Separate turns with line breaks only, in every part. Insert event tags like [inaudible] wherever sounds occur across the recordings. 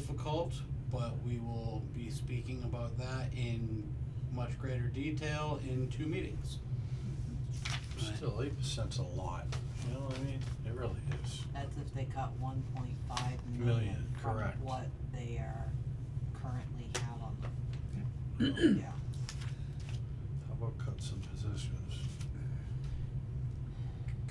difficult, but we will be speaking about that in much greater detail in two meetings. Right.
Still, eight percent's a lot, you know what I mean? It really is.
That's if they cut one point five million
Million,
from
correct.
what they are currently have on them. Yeah.
How about cut some positions?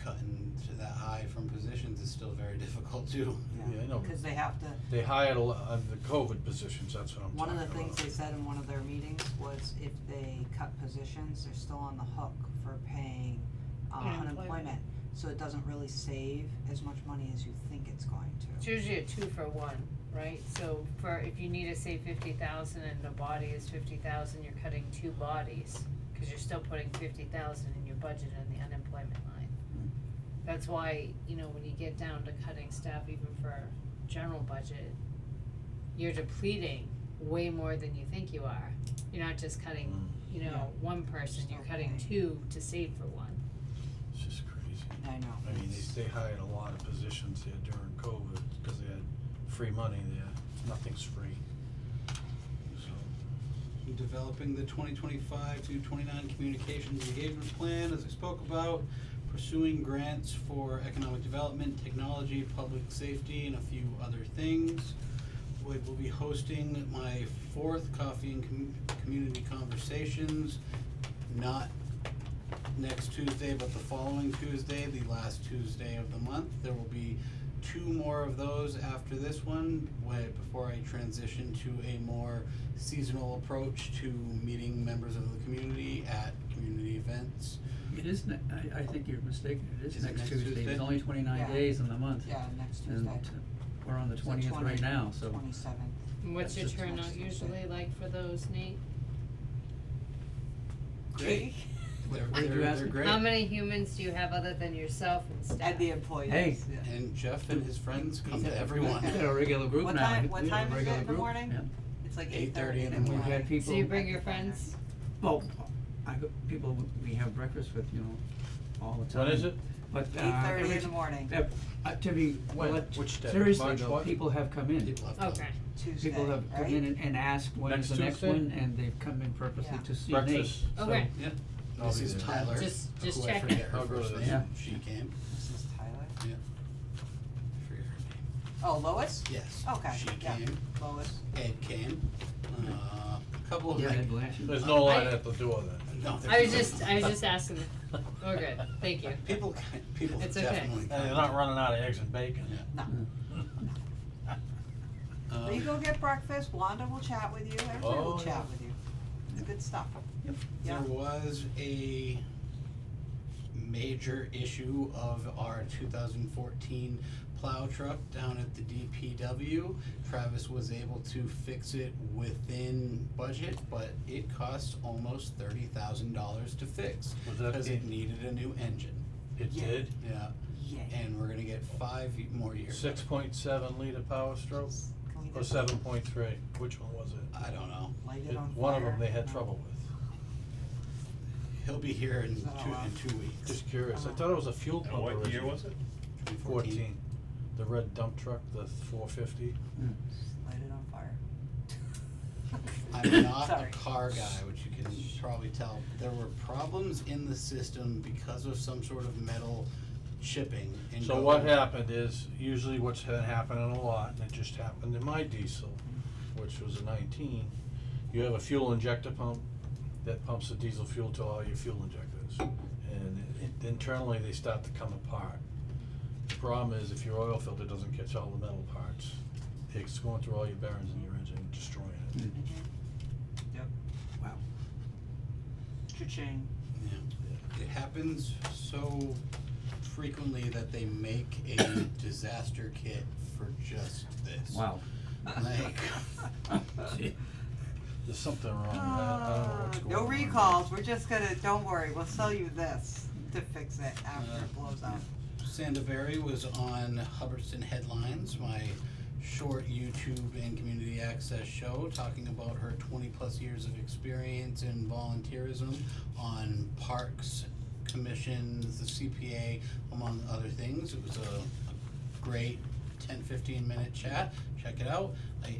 Cutting to that high from positions is still very [laughs] difficult too.
Yeah, I know.
Cause they have to,
They hired a lot of the COVID positions, that's what I'm
one
talking
of
about.
the things they said in one of their meetings was if they cut positions, they're still on the hook for paying uh,
Unemployment.
unemployment. So it doesn't really save as much money as you think it's going
It's
to.
usually a two for one, right? So for, if you need to say fifty thousand and the body is fifty thousand, you're cutting two bodies, cause you're still putting fifty thousand in your budget in the unemployment line. That's why, you know, when you get down to cutting staff even for general budget, you're depleting way more than you think you are. You're not just cutting,
Mm.
you
Yeah.
know, one person, you're cutting
Okay.
two to save for one.
It's just crazy.
I know.
I mean,
it's-
they, they hired a lot of positions there during COVID, cause they had free money there, nothing's free. So,
Developing the twenty twenty-five to twenty-nine communications engagement plan, as I spoke about, pursuing grants for economic development, technology, public safety, and a few other things. We will be hosting my fourth coffee and com- community conversations, not next Tuesday, but the following Tuesday, the last Tuesday of the month. There will be two more of those after this one, way, before I transition to a more seasonal approach to meeting members of the community at community events.
It is, ne- I, I think you're mistaken, it
Is
is
it
next
next
Tuesday,
Tuesday?
it's only twenty-nine
Yeah.
days in the month.
Yeah, next
And
Tuesday.
t- we're on the twentieth right now, so.
Twenty-seventh.
And What's your
That's just
turnout
nice.
usually like for those, Nate?
Great. They're,
What did you
they're,
ask
they're
me?
great.
How many humans do you have other than yourself and staff?
At the employees.
Hey.
yeah.
And Jeff and his friends come to
[laughs]
[laughs] We've got
everyone.
a regular group now.
What time-
We-
what
we have a
time is it
regular
in the
group,
morning?
yeah.
It's like
8:30 in the
We've
morning.
had
So you
people,
bring your friends?
well, I, go- people we have breakfast with, you know, all the time.
When is it?
But, uh.
Eight thirty in
every-
the morning,
uh, uh, to be,
When?
let-
Which day?
seriously
March
though,
what?
people have come in.
People have
Okay,
Tuesday,
People have come in
right?
and, and asked when's
Next
the next
Tuesday?
one, and they've come in purposely
Yeah.
to see Nate.
breakfast.
So-
okay.
I'll
This
be
is
there.
Tyler,
Just-
who
just
I
checking.
forget her
I'll go to
first
the-
name,
Yeah.
she came,
This is Tyler.
I forget her name.
Oh, Lois?
Yes,
Okay,
she
yeah.
came,
Lois.
Ed came, uh, a couple of
Yeah,
like,
Ed Blanchard.
There's no line at the door then.
no,
I
there's
was
no-
just,
[laughs]
I was just asking, we're good, thank you.
People, people
It's okay.
definitely.
And Uh, they're not running out of eggs and bacon.
Yeah.
No.
Um,
But you go get breakfast, Wanda will chat with you, everybody will
Oh,
chat
yeah.
with you. It's good stuff.
There
Yeah.
was a major issue of our two thousand fourteen plow truck down at the DPW. Travis was able to fix it within budget, but it cost almost thirty thousand dollars to fix.
Was that
Cause
the-
it needed a new engine,
It
Yeah.
did,
yeah,
Yay.
and we're gonna get five y- more years.
six point seven liter power stroke,
Can we
or
just
seven point three, which one was it?
I don't know,
light
It-
it on fire?
One of them they had
No.
trouble with.
he'll be here in
Is that
two,
allowed?
in two weeks,
Just curious, I thought it was a fuel pump originally.
it?
Fourteen, the red dump truck, the four fifty.
Light it on
[laughs]
fire. [laughs]
I'm not a
Sorry.
car guy, which you can probably tell. There were problems in the system because of some sort of metal chipping. And
So what happened is, usually what's had happened in a lot, and it just happened in my diesel, which was a nineteen, you have a fuel injector pump that pumps the diesel fuel to all your fuel injectors. And it- internally, they start to come apart. The problem is if your oil filter doesn't catch all the metal parts, it's going through all your bearings in your engine, and destroying it.
Cha-ching.
Yeah. It happens so frequently that they make a [coughs] disaster kit for just this.
Wow.
Like,
There's something wrong, with that. I don't know what's
Ah,
going
Uh, No
on.
recalls, we're just gonna, don't worry, we'll sell you this to fix it after
Yeah.
it blows up.
Sandaberry was on Hubbardston Headlines, my short YouTube and community access show, talking about her 20 plus years of experience in volunteerism on parks, commissions, the CPA, among other things. It was a, a great 10 15 minute chat. check it out. I